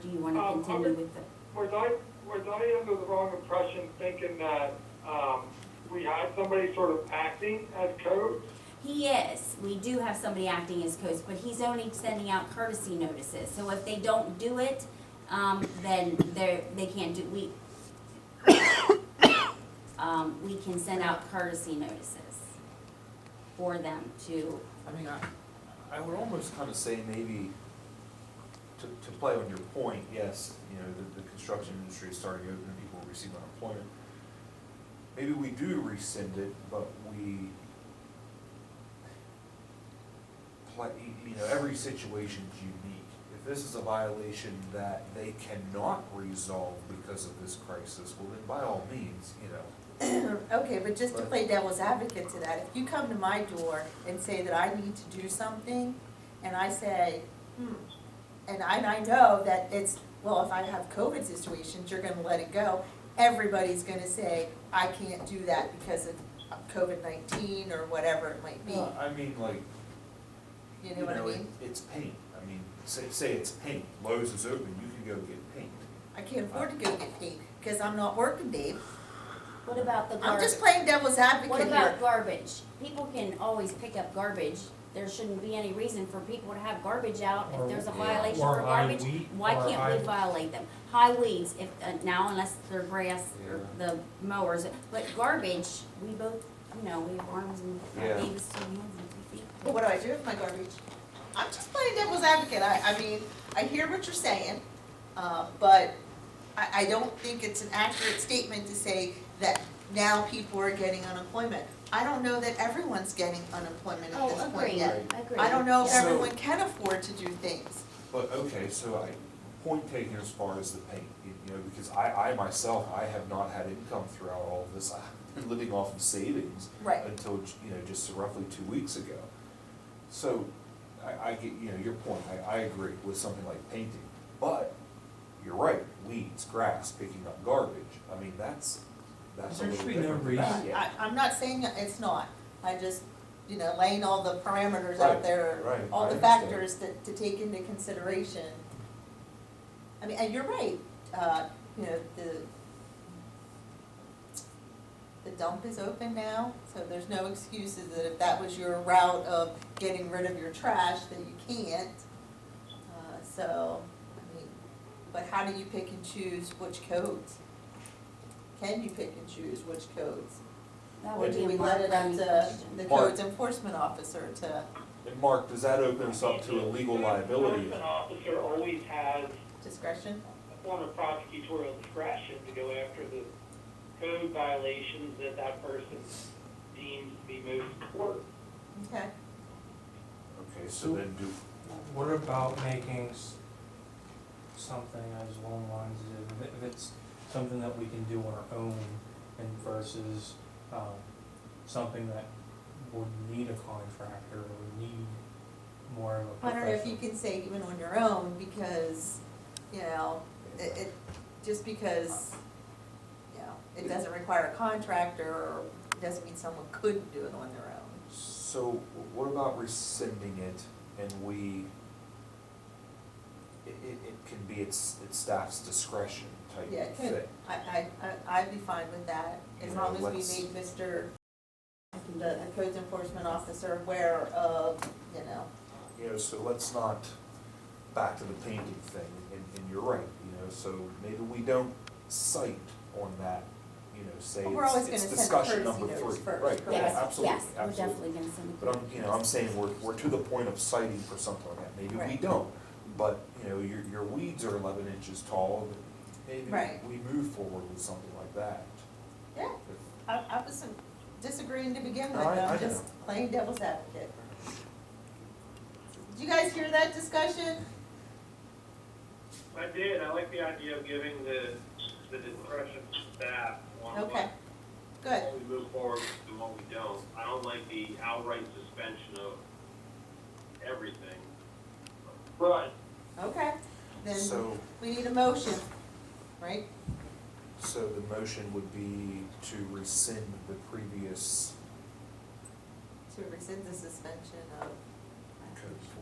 do you want to Um, continue okay. with the? Was I, was I under the wrong impression thinking that, um, we had somebody sort of acting as coach? He is, we do have somebody acting as coach, but he's only sending out courtesy notices, so if they don't do it, um, then they're, they can't do, we, um, we can send out courtesy notices for them to, I mean, I, I would almost kind of say maybe, to, to play on your point, yes, you know, the, the construction industry is starting to open and people are receiving unemployment. Maybe we do rescind it, but we play, you know, every situation's unique. If this is a violation that they cannot resolve because of this crisis, well, then by all means, you know, Okay, but just to Right. play devil's advocate to that, if you come to my door and say that I need to do something, and I say, hmm, and I, and I know that it's, well, if I have COVID situations, you're gonna let it go, everybody's gonna say, I can't do that because of COVID nineteen or whatever it might be, Well, I mean, like, you know what I it- mean? It's paint, I mean, say, say it's paint, Lowe's is open, you can go get paint. I can't afford to go get paid, because I'm not working, Dave, what about the I'm garbage? just playing devil's What advocate here. about garbage? People can always pick up garbage, there shouldn't be any reason for people to have garbage out if there's a Or- violation or for high garbage. wheat, Why can't or we high- violate them? High weeds, if, uh, now unless they're grass or the mowers, but garbage, we both, you know, we have arms and Yeah. legs and hands and feet. But what do I do with my garbage? I'm just playing devil's advocate, I, I mean, I hear what you're saying, uh, but I, I don't think it's an accurate statement to say that now people are getting unemployment. I don't know that everyone's getting unemployment at this Oh, point agree, yet. agree. I don't know if Yeah. So- everyone can afford to do things. But, okay, so I, point taken as far as the paint, you you know, because I, I myself, I have not had income throughout all of this, I've been living off of savings. Right. Until, you know, just roughly two weeks ago. So, I, I get, you know, your point, I, I agree with something like painting, but you're right, weeds, grass, picking up garbage, I mean, that's, that's a There little should be no different than that. reason. I, I'm not saying that it's not, I just, you know, laying all the parameters out Right, there, right, all I the understand. factors that, to take into consideration. I mean, and you're right, uh, you know, the, the dump is open now, so there's no excuses that if that was your route of getting rid of your trash, that you can't. Uh, so, I mean, but how do you pick and choose which codes? Can you pick and choose which codes? That Or would do be we a Mark let Browning it up to question. the Mark. codes enforcement officer to And Mark, does that open us up to a legal liability? An officer always has discretion? a form of prosecutorial discretion to go after the code violations that that person deems to be most important. Okay. Okay, so then do, What about making s- something as long lines as, if- if it's something that we can do on our own and versus, um, something that would need a contractor or would need more of a I professional? don't know if you can say even on your own because, you know, it, it, just because, you know, it doesn't require a contractor or doesn't mean someone couldn't do it on their own. so what about rescinding it and we, it, it, it can be its, its staff's discretion type Yeah, of it could, thing? I, I, I- I'd be fine with that, as You know, long as we let's- made Mr., the the codes enforcement officer aware of, you know, You know, so let's not, back to the painting thing, and, and you're right, you know, so maybe we don't cite on that, you know, say But we're it's, always it's gonna send a discussion courtesy number three. notice first, Right, yeah, correct? Yes, absolutely, yes, absolutely. we're definitely gonna send a. But I'm, you know, I'm saying we're, we're to the point of citing for something like that, maybe we Right. don't, but, you know, your, your weeds are eleven inches tall, but maybe Right. we move forward with something like that. yeah, I, I was disagreeing to begin with, No, I- I I'm know. just playing devil's advocate. Did you guys hear that discussion? I did, I like the idea of giving the, the discretion to staff on Okay, what, good. what we move forward with and what we don't. I don't like the outright suspension of everything. Right. Okay, then So, we need a motion, right? so the motion would be to rescind the previous To rescind the suspension of code.